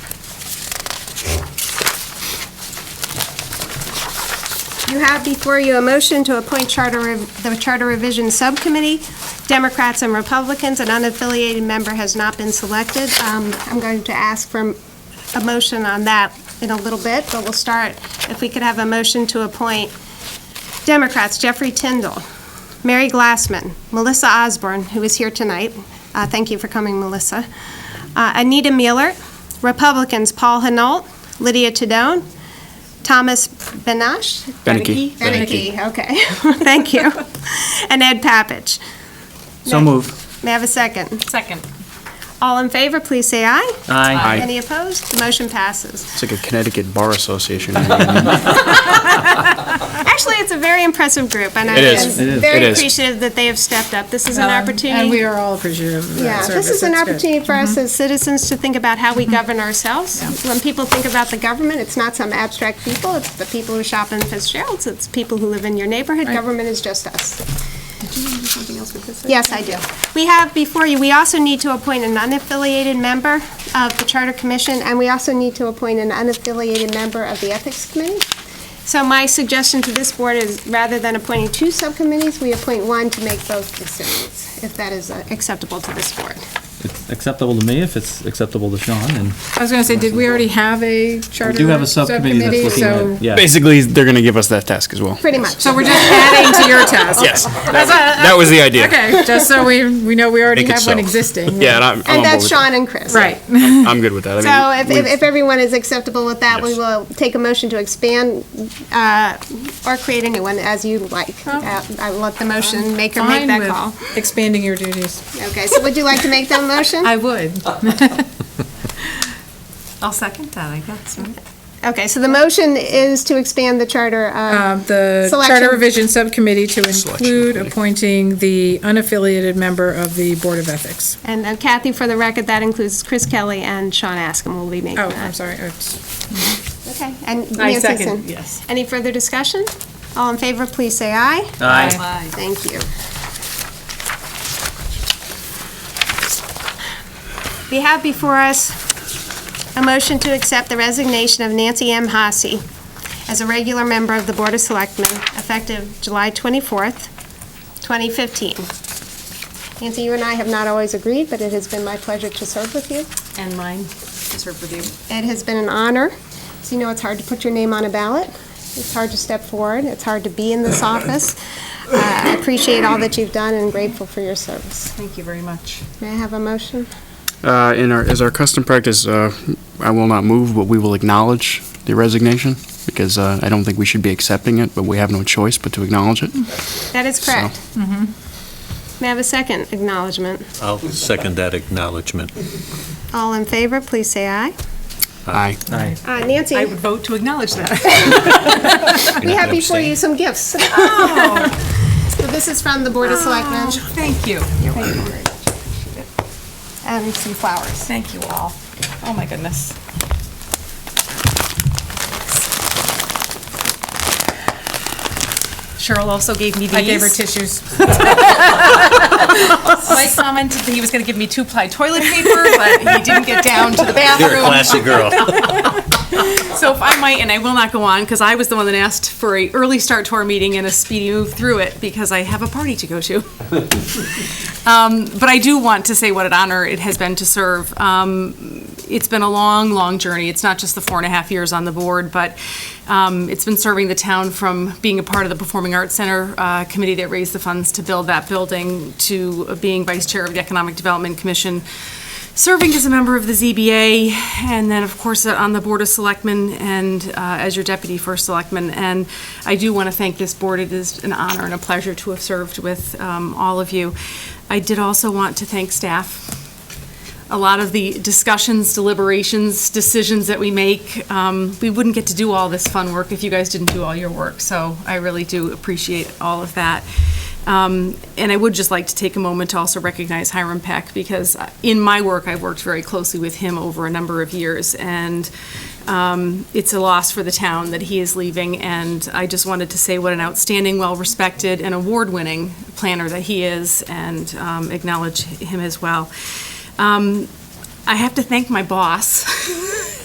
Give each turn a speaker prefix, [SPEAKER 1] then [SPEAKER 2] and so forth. [SPEAKER 1] You have before you a motion to appoint charter, rev- the Charter Revision Subcommittee. Democrats and Republicans, an unaffiliated member has not been selected. Um, I'm going to ask for a motion on that in a little bit, but we'll start, if we could have a motion to appoint Democrats, Jeffrey Tyndall, Mary Glassman, Melissa Osborne, who is here tonight. Uh, Thank you for coming, Melissa. Uh, Anita Mueller, Republicans, Paul Hanault, Lydia Tadone, Thomas Benash?
[SPEAKER 2] Beneke.
[SPEAKER 1] Beneke, okay. Thank you. And Ed Pappich.
[SPEAKER 2] So move.
[SPEAKER 1] May I have a second?
[SPEAKER 3] Second.
[SPEAKER 1] All in favor, please say aye.
[SPEAKER 2] Aye.
[SPEAKER 1] Any opposed? The motion passes.
[SPEAKER 2] It's like a Connecticut Bar Association.
[SPEAKER 1] Actually, it's a very impressive group, and I'm
[SPEAKER 2] It is. It is. It
[SPEAKER 1] very
[SPEAKER 2] is.
[SPEAKER 1] appreciative that they have stepped up. This is
[SPEAKER 4] Um,
[SPEAKER 1] an opportunity.
[SPEAKER 3] Um, And we are all appreciative of
[SPEAKER 1] Yeah,
[SPEAKER 3] that service.
[SPEAKER 1] this is an
[SPEAKER 3] That's good. Mm-hmm.
[SPEAKER 1] opportunity for us as citizens to think about how we govern ourselves. When people think about the government, it's not some abstract people, it's the people who shop in Fitzgerald's, it's people who live in your neighborhood. Government is just us. Yes, I do. We have before you, we also need to appoint an unaffiliated member of the Charter Commission, and we also need to appoint an unaffiliated member of the Ethics Committee. So my suggestion to this board is, rather than appointing two subcommittees, we appoint one to make both decisions, if that is uh, acceptable to this board.
[SPEAKER 5] It's acceptable to me if it's acceptable to Sean, and
[SPEAKER 3] I was going to say, did we already have a charter?
[SPEAKER 5] we do have a subcommittee that's looking
[SPEAKER 3] so-
[SPEAKER 5] at, yeah.
[SPEAKER 2] Basically, they're going to give us that task as well.
[SPEAKER 1] Pretty much.
[SPEAKER 3] So we're just adding to your task?
[SPEAKER 2] Yes, that was the idea.
[SPEAKER 3] Okay, just so we, we know we already
[SPEAKER 2] Make it
[SPEAKER 3] have one
[SPEAKER 2] so.
[SPEAKER 3] existing.
[SPEAKER 2] Yeah, and I'm,
[SPEAKER 1] And
[SPEAKER 2] I'm on board
[SPEAKER 1] that's
[SPEAKER 2] with that.
[SPEAKER 1] Sean and Chris.
[SPEAKER 3] Right.
[SPEAKER 2] I'm good with that.
[SPEAKER 1] So
[SPEAKER 2] I
[SPEAKER 1] if,
[SPEAKER 2] mean,
[SPEAKER 1] if
[SPEAKER 2] we've-
[SPEAKER 1] if everyone is acceptable with that, we
[SPEAKER 2] Yes.
[SPEAKER 1] will take a motion to expand uh, or create a new one as you like. Uh, I'll let the motion maker make
[SPEAKER 3] Oh. Fine
[SPEAKER 1] that
[SPEAKER 3] with
[SPEAKER 1] call.
[SPEAKER 3] Expanding your duties.
[SPEAKER 1] Okay, so would you like to make that motion?
[SPEAKER 3] I would.
[SPEAKER 4] I'll second that, I guess.
[SPEAKER 1] Okay, so the motion is to expand the charter. uh,
[SPEAKER 3] Um, The
[SPEAKER 1] Selection.
[SPEAKER 3] Charter Revision Subcommittee to include appointing the unaffiliated member of the Board of Ethics.
[SPEAKER 1] And uh, Kathy, for the record, that includes Chris Kelly and Sean Askham will be making
[SPEAKER 3] Oh,
[SPEAKER 1] that.
[SPEAKER 3] I'm sorry. it's-
[SPEAKER 1] Okay, and Nancy
[SPEAKER 3] second,
[SPEAKER 1] Sin.
[SPEAKER 3] yes.
[SPEAKER 1] Any further discussion? All in favor, please say aye.
[SPEAKER 5] Aye.
[SPEAKER 1] Thank you. We have before us a motion to accept the resignation of Nancy M. Hossie as a regular member of the Board of Selectmen effective July 24th, 2015. Nancy, you and I have not always agreed, but it has been my pleasure to serve with you.
[SPEAKER 4] And mine is her review.
[SPEAKER 1] It has been an honor. So you know, it's hard to put your name on a ballot. It's hard to step forward. It's hard to be in this office. Uh, I appreciate all that you've done and grateful for your service.
[SPEAKER 4] Thank you very much.
[SPEAKER 1] May I have a motion?
[SPEAKER 2] Uh, in our, as our custom practice, uh, I will not move, but we will acknowledge the resignation because, uh, I don't think we should be accepting it, but we have no choice but to acknowledge it.
[SPEAKER 1] That is correct.
[SPEAKER 4] Mm-hmm.
[SPEAKER 1] May I have a second acknowledgement?
[SPEAKER 6] I'll second that acknowledgement.
[SPEAKER 1] All in favor, please say aye.
[SPEAKER 2] Aye.
[SPEAKER 5] Aye.
[SPEAKER 1] Uh, Nancy,
[SPEAKER 4] I would vote to acknowledge that.
[SPEAKER 1] we have before you some gifts. So This is from the Board of Selectmen
[SPEAKER 4] Thank you.
[SPEAKER 1] and some flowers.
[SPEAKER 4] Thank you all. Oh, my goodness. Cheryl also gave me these.
[SPEAKER 3] I gave her tissues.
[SPEAKER 4] I commented that he was going to give me two-ply toilet paper, but he didn't get down to the bathroom.
[SPEAKER 6] You're a classy girl.
[SPEAKER 4] So if I might, and I will not go on, because I was the one that asked for a early start to our meeting and a speedy move through it, because I have a party to go to. Um, But I do want to say what an honor it has been to serve. Um, It's been a long, long journey. It's not just the four and a half years on the board, but um, it's been serving the town from being a part of the Performing Arts Center uh, Committee that raised the funds to build that building, to being vice chair of the Economic Development Commission, serving as a member of the ZBA, and then, of course, uh, on the Board of Selectmen and uh, as your deputy first selectman. And I do want to thank this board. It is an honor and a pleasure to have served with um, all of you. I did also want to thank staff. A lot of the discussions, deliberations, decisions that we make, um, we wouldn't get to do all this fun work if you guys didn't do all your work. So I really do appreciate all of that. Um, And I would just like to take a moment to also recognize Hiram Peck, because uh, in my work, I've worked very closely with him over a number of years, and um, it's a loss for the town that he is leaving, and I just wanted to say what an outstanding, well-respected, and award-winning planner that he is, and um, acknowledge him as well. Um, I have to thank my boss